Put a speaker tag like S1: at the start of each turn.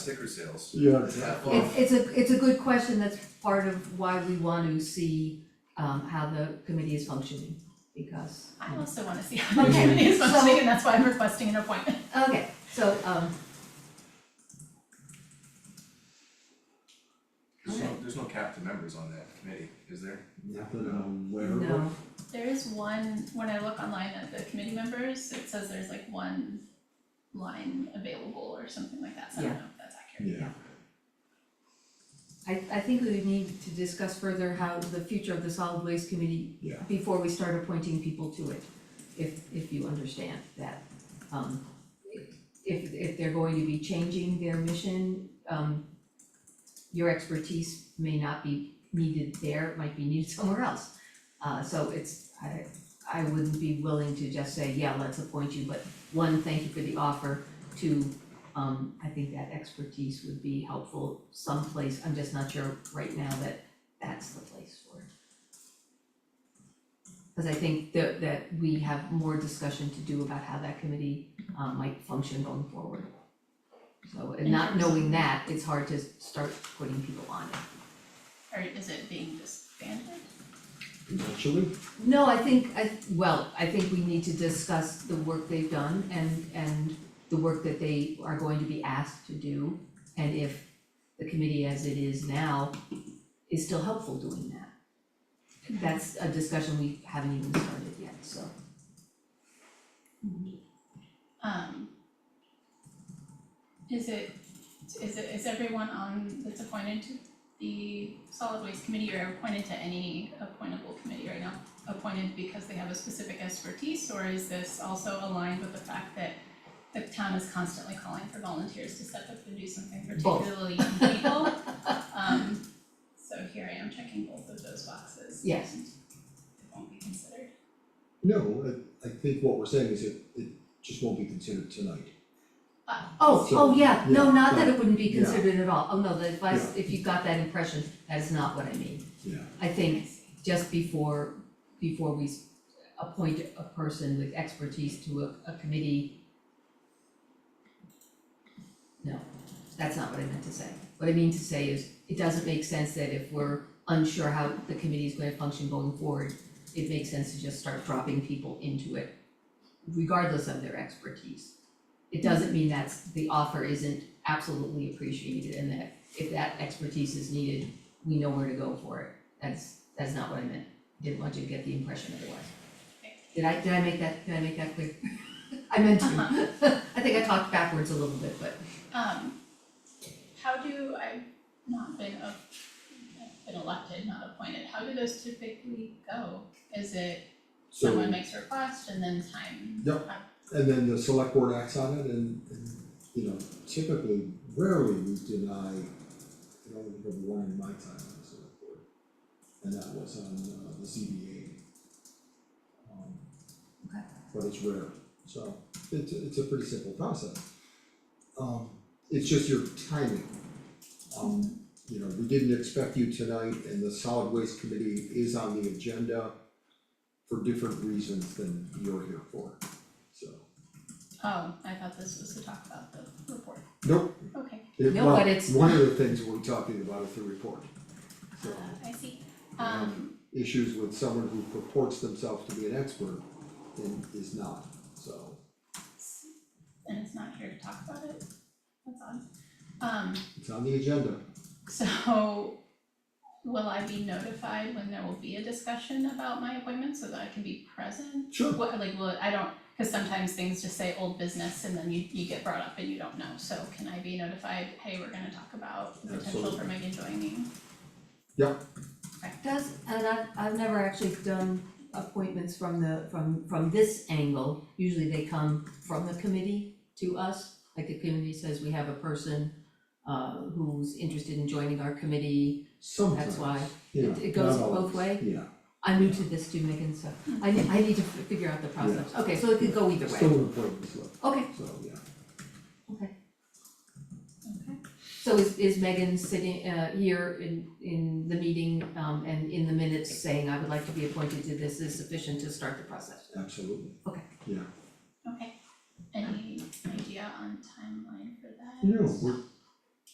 S1: sticker sales.
S2: Yeah.
S1: That far.
S3: It's it's a, it's a good question, that's part of why we want to see um how the committee is functioning, because.
S4: I also wanna see how the
S3: Okay,
S4: committee is
S3: so-
S4: functioning, and that's why I'm requesting an appointment.
S3: Okay, so um,
S1: There's no, there's no cap to members on that committee, is there?
S2: Not that I'm aware of.
S3: no,
S4: There is one, when I look online at the committee members, it says there's like one line available or something like that, so I don't know if that's accurate.
S2: Yeah,
S3: I I think we would need to discuss further how the future of the solid waste committee
S2: Yeah.
S3: before we start appointing people to it, if if you understand that. Um, if if they're going to be changing their mission, um your expertise may not be needed there, it might be needed somewhere else. Uh, so it's, I I wouldn't be willing to just say, yeah, let's appoint you, but one, thank you for the offer, two, um, I think that expertise would be helpful someplace, I'm just not sure right now that that's the place for it. Cause I think that that we have more discussion to do about how that committee um might function going forward. So, and not knowing that, it's hard to start putting people on it.
S4: Or is it being disbanded?
S2: potentially,
S3: No, I think, I, well, I think we need to discuss the work they've done and, and the work that they are going to be asked to do. And if the committee as it is now is still helpful doing that. That's a discussion we haven't even started yet, so.
S4: Um. Is it, is it, is everyone on that's appointed to the solid waste committee or appointed to any appointable committee right now? Appointed because they have a specific expertise, or is this also aligned with the fact that the town is constantly calling for volunteers to step up and do something
S3: Both.
S4: particularly young people? Um, so here I am checking both of those boxes.
S3: Yes.
S4: and It won't be considered.
S2: no, I I think what we're saying is it it just won't be considered tonight.
S3: Oh,
S2: So,
S3: oh, yeah, no,
S2: yeah,
S3: not that
S2: yeah.
S3: it wouldn't be considered at all, oh, no, the advice,
S2: Yeah.
S3: if you got that impression, that is not what I mean.
S2: Yeah.
S3: I think just before, before we s- appoint a person with expertise to a, a committee. No, that's not what I meant to say. What I mean to say is, it doesn't make sense that if we're unsure how the committee is gonna function going forward, it makes sense to just start dropping people into it regardless of their expertise. It doesn't mean that the offer isn't absolutely appreciated and that if that expertise is needed, we know where to go for it. That's, that's not what I meant. Didn't want you to get the impression otherwise. Did I, did I make that, did I make that clear? I meant to. I think I talked backwards a little bit, but
S4: Um, how do, I've not been a, I've been elected, not appointed, how do those typically go? Is it
S2: So
S4: someone makes a request and then time?
S2: Yep. and then the select board acts on it and and you know, typically rarely we deny, I don't think of one in my time on the select board. And that was on uh the ZBA. Um,
S3: Okay.
S2: But it's rare, so it's it's a pretty simple process. Um, it's just your timing. Um, you know, we didn't expect you tonight and the solid waste committee is on the agenda for different reasons than you're here for, so.
S4: Oh, I thought this was to talk about the report,
S2: Nope,
S4: okay,
S2: it,
S3: No,
S2: well,
S3: but it's-
S2: one of the things we're talking about is the report.
S4: uh,
S2: So,
S4: I see, um,
S2: Um, issues with someone who purports themselves to be an expert and is not, so,
S4: and it's not here to talk about it, that's odd. Um,
S2: it's on the agenda.
S4: so will I be notified when there will be a discussion about my appointment so that I can be present?
S2: Sure.
S4: What, like, well, I don't, cause sometimes things just say old business and then you, you get brought up and you don't know, so can I be notified, hey, we're gonna talk about the potential for
S2: Absolutely.
S4: Megan joining?
S3: does, and I've, I've never actually done appointments from the, from, from this angle. Usually they come from the committee to us, like the committee says, we have a person uh who's interested in joining our committee.
S2: Sometimes,
S3: why
S2: yeah,
S3: it- it goes
S2: not
S3: both
S2: always,
S3: way?
S2: Yeah,
S3: I'm new to this too, Megan, so I need, I need to fi- figure out the process. Okay, so it could go either
S2: still
S3: way.
S2: an important slip,
S3: Okay,
S2: so, yeah.
S4: Okay.
S3: so is, is Megan sitting, uh, here in, in the meeting, um, and in the minutes saying, I would like to be appointed to this, is sufficient to start the process?
S2: Absolutely.
S3: Okay.
S2: Yeah,
S4: Okay, any idea on timeline for that?
S2: you know, we're